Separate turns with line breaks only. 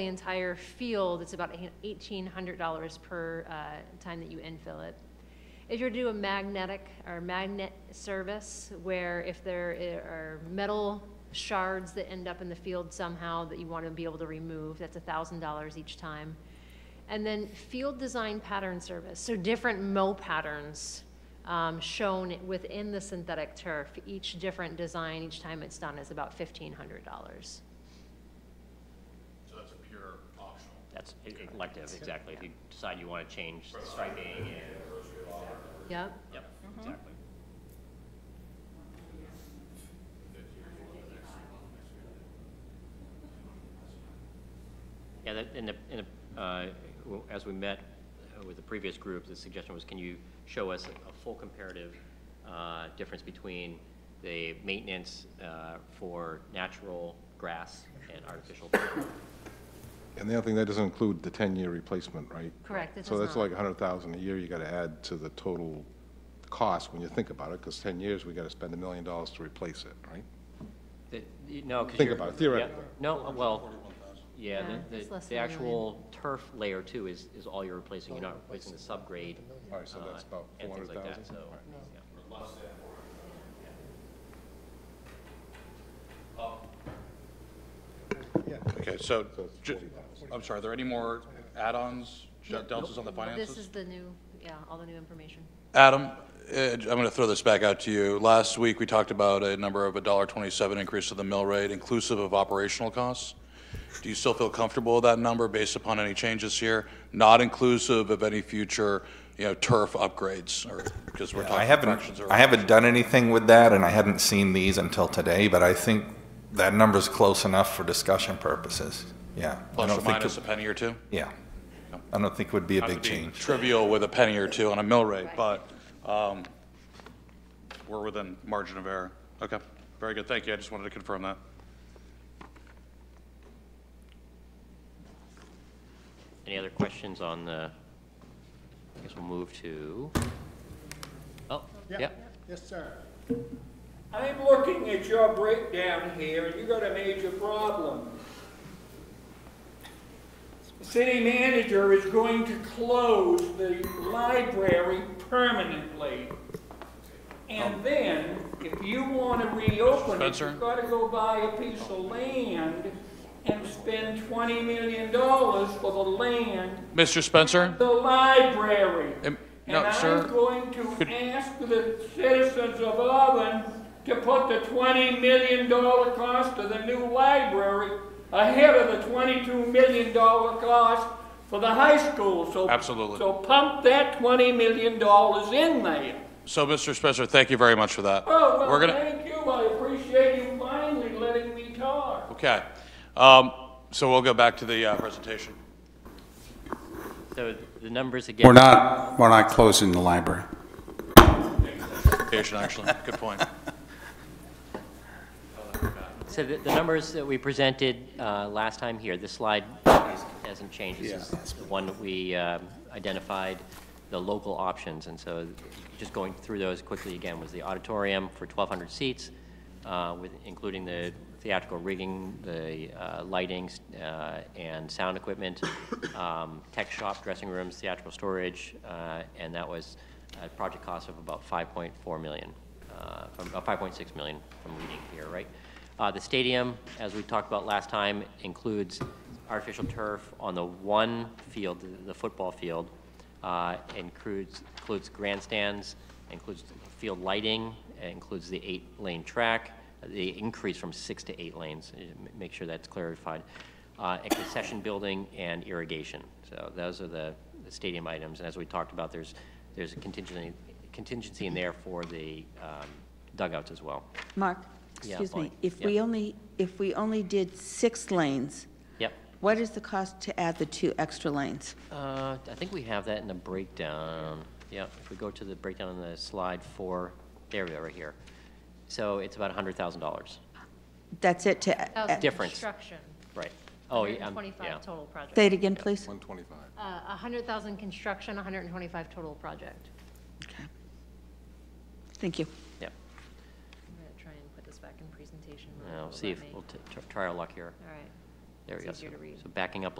the entire field, it's about eighteen hundred dollars per uh, time that you infill it. If you're to do a magnetic or magnet service, where if there are metal shards that end up in the field somehow that you want to be able to remove, that's thousand dollars each time. And then field design pattern service, so different mow patterns um, shown within the synthetic turf. Each different design, each time it's done, is about fifteen hundred dollars.
So that's a pure optional.
That's e- elective, exactly. If you decide you want to change the striping and,
Yep.
yep, exactly. Yeah, that, in the, in the, uh, w- as we met uh, with the previous group, the suggestion was, can you show us a- a full comparative uh, difference between the maintenance uh, for natural grass and artificial?
And the other thing, that doesn't include the 10-year replacement, right?
Correct, it
So
does
that's
not.
like 100,000 a year you got to add to the total cost when you think about it, because 10 years, we got to spend a million dollars to replace it, right?
The- you- No, because
Think
you're.
about it,
yeah,
theoretically.
No, uh, well, yeah,
Yeah,
the-
it's
the,
less
the
than a million.
actual turf layer too is, is all you're replacing, you're not replacing the subgrade.
All right, so
uh,
that's about
and things like that,
400,000.
So,
All right.
yeah.
Okay, so,
So it's
ju-
40,000.
I'm sorry, are there any more add-ons, shut- deltas on the
This
finances?
is the new, yeah, all the new information.
Adam, eh, I'm going to throw this back out to you. Last week, we talked about a number of a dollar twenty-seven increase to the mill rate inclusive of operational costs. Do you still feel comfortable with that number based upon any changes here? Not inclusive of any future, you know, turf upgrades or, because we're
I
talking
haven't,
fractions or.
I haven't done anything with that, and I hadn't seen these until today, but I think that number's close enough for discussion purposes. Yeah. I
Plus
don't
or
think
minus a
it-
penny or two?
Yeah. I don't think it would be a
Not to
big
be
change.
Trivial with a penny or two on a mill rate, but um, we're within margin of error. Okay, very good, thank you, I just wanted to confirm that.
Any other questions on the, I guess we'll move to, oh, yeah.
Yes, sir.
I'm looking at your breakdown here, and you got a major problem. The city manager is going to close the library permanently. And then, if you want to reopen it,
Spencer?
you've got to go buy a piece of land and spend twenty million dollars for the land
Mr. Spencer?
the library.
Em-
And
no, sir.
I'm going
Could-
to ask the citizens of Auburn to put the twenty million dollar cost of the new library ahead of the twenty-two million dollar cost for the high school, so.
Absolutely.
So pump that twenty million dollars in there.
So, Mr. Spencer, thank you very much for that.
Oh,
We're
well,
gonna-
thank you, I appreciate you finally letting me talk.
Okay, Um, so we'll go back to the uh, presentation.
So the numbers again.
We're not, we're not closing the library.
Presentation, actually, good point.
So the, the numbers that we presented uh, last time here, this slide is- hasn't changed. This is the one that we um, identified, the local options, and so just going through those quickly again was the auditorium for 1,200 seats, uh, with, including the theatrical rigging, the uh, lighting uh, and sound equipment, um, tech shop, dressing rooms, theatrical storage, uh, and that was a project cost of about 5.4 million, uh, from, uh, 5.6 million from reading here, right? Uh, The stadium, as we talked about last time, includes artificial turf on the one field, the- the football field, uh, includes, includes grandstands, includes field lighting, includes the eight-lane track, the increase from six to eight lanes, eh, m- make sure that's clarified, uh, and concession building and irrigation. So those are the the stadium items, and as we talked about, there's, there's a contingency, contingency in there for the um, dugouts as well.
Mark,
Yeah,
excuse
fine.
me, if
Yeah.
we only, if we only did six lanes,
Yep.
what is the cost to add the two extra lanes?
Uh, I think we have that in the breakdown. Yeah, if we go to the breakdown on the slide four, there we are, right here. So it's about hundred thousand dollars,
That's it to,
Thousand
add-
Difference.
Construction.
right? Oh, yeah, um,
125
yeah.
total project.
say it again, please?
125.
Uh, 100,000 construction, 125 total project.
Okay. Thank you.
Yeah,
I'm going to try and put this back in presentation. mode.
Yeah, we'll
Will
see
that
if,
make-
we'll t- tr- try our luck here.
All right.
There- There we go.
easier
So-
to read.
So backing up a